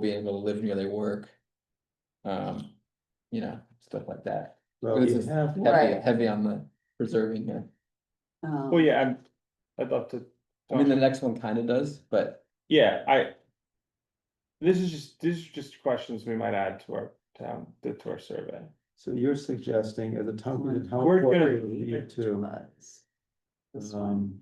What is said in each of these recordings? be able to live near their work. Um, you know, stuff like that. Well, This you is- have, Heavy, Right. heavy on the preserving here. Um, well, yeah, I'm, I'd love to. I mean, the next one kind of does, but Yeah, I. This is just, these are just questions we might add to our town, to our survey. So you're suggesting at the top of the. We're gonna- To, was- um.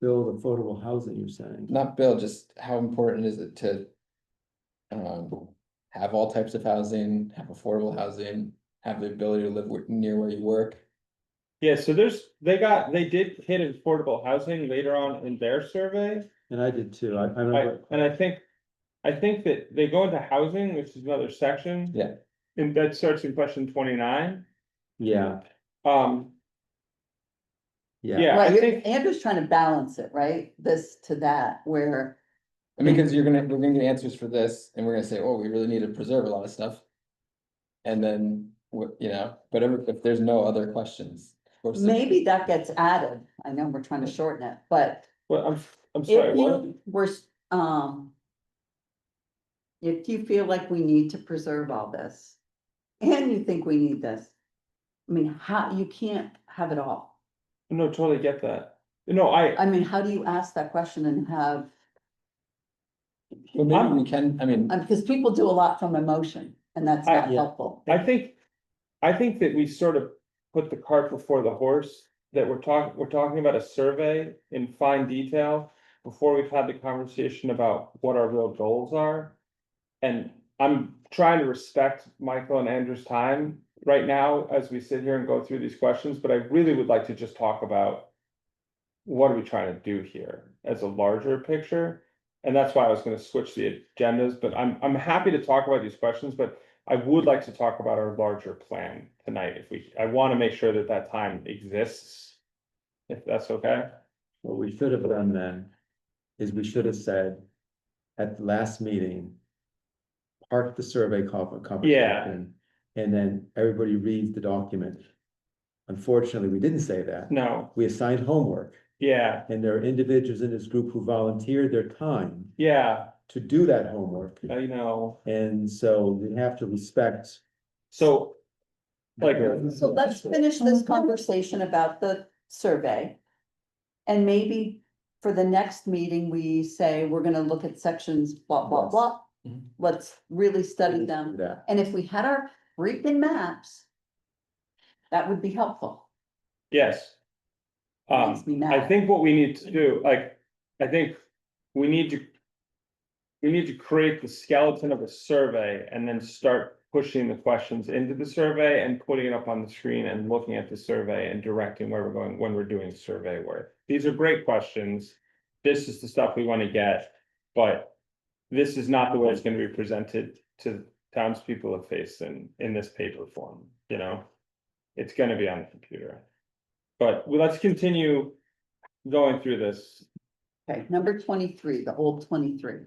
Build affordable housing, you're saying, not Bill, just how important is it to? Um, have all types of housing, have affordable housing, have the ability to live where- near where you work. Yeah, so there's, they got, they did hit affordable housing later on in their survey, and I did too, I, I I, remember. and I think. I think that they go into housing, which is another section. Yeah. And that starts in question twenty-nine, Yeah, um, yeah, yeah, I Right, you're- think, Andrew's trying to balance it, right? This to that, where, I mean, because you're gonna, we're gonna get answers for this and we're gonna say, oh, we really need to preserve a lot of stuff. And then, what, you know, but if if there's no other questions. of course, maybe that gets added. I know we're trying to shorten it, but well, I'm, I'm sorry, if what? you were, s- um. If you feel like we need to preserve all this, and you think we need this, I mean, how, you can't have it all. No, totally get that, no, I, I mean, how do you ask that question and have, Well, maybe we can, I mean, uh, because people do a lot from emotion, and that's I- not Yeah. helpful. I think, I think that we sort of put the cart before the horse, that we're talking, we're talking about a survey in fine detail. Before we've had the conversation about what our real goals are. And I'm trying to respect Michael and Andrew's time right now as we sit here and go through these questions, but I really would like to just talk about. What are we trying to do here as a larger picture? And that's why I was gonna switch the agendas, but I'm, I'm happy to talk about these questions, but I would like to talk about our larger plan tonight, if we, I wanna make sure that that time exists. If that's okay, what we should have done then is we should have said at the last meeting. Park the survey conver- conversation, and then everybody reads the document. Unfortunately, we didn't say that, no, we assigned homework. yeah, And there are individuals in this group who volunteered their time yeah, to do that homework. I know, And so we have to respect. so. Like, So let's finish this conversation about the survey. And maybe for the next meeting, we say we're gonna look at sections blah, blah, Yes. blah. Mm-hmm. Mhm. Let's really study them. That, And if we had our freaking maps, that would be helpful. yes. Um, Makes me I mad. think what we need to do, like, I think we need to. We need to create the skeleton of a survey and then start pushing the questions into the survey and putting it up on the screen and looking at the survey and directing where we're going when we're doing survey work. These are great questions. This is the stuff we want to get, but this is not the way it's going to be presented to townspeople of face in in this paper form, you know? It's gonna be on the computer. But well, let's continue going through this. Okay, number twenty-three, the old twenty-three.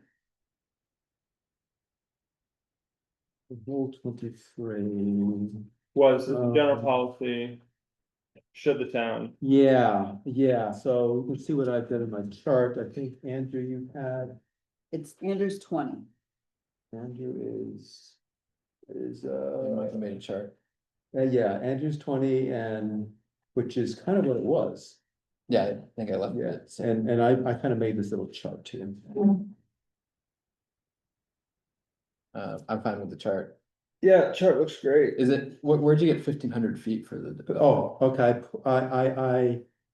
rule twenty-three, Was this a general Um, policy? Should the town, yeah, yeah, so let's see what I've done in my chart, I think Andrew, you had, It's Andrew's twenty. Andrew is. Is I might uh, have made a chart. uh, yeah, Andrew's twenty and, which is kind of what it was. Yeah, I think I left Yeah, it. so- and, and I, I kind of made this little chart too. Uh, I'm fine with the chart. Yeah, chart looks great. Is it, where, where'd you get fifteen hundred feet for the? Oh, okay, I, I, I.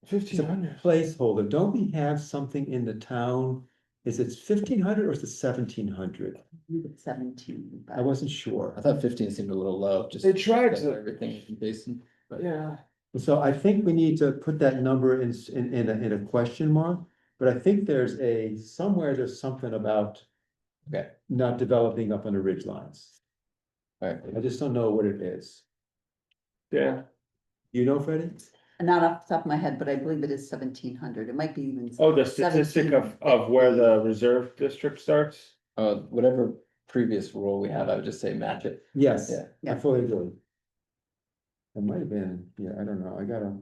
It's a fifteen hundred, placeholder, don't we have something in the town? Is it fifteen hundred or is it seventeen hundred? You did Seventeen. but- I wasn't sure. I thought fifteen seemed a little low, just. They tried because to- Everything in basin, but yeah, So I think we need to put that number in, s- in, in a, in a question mark, but I think there's a, somewhere there's something about. Okay. Not developing up on the ridge lines. alright, I just don't know what it is. yeah, You know, Freddie? Not off the top of my head, but I believe it is seventeen hundred. It might be even. oh, the statistic of of where the reserve district starts, uh, whatever previous rule we have, I would just say match it. Yes, Yeah. I Yeah. fully agree. It might have been, yeah, I don't know, I gotta.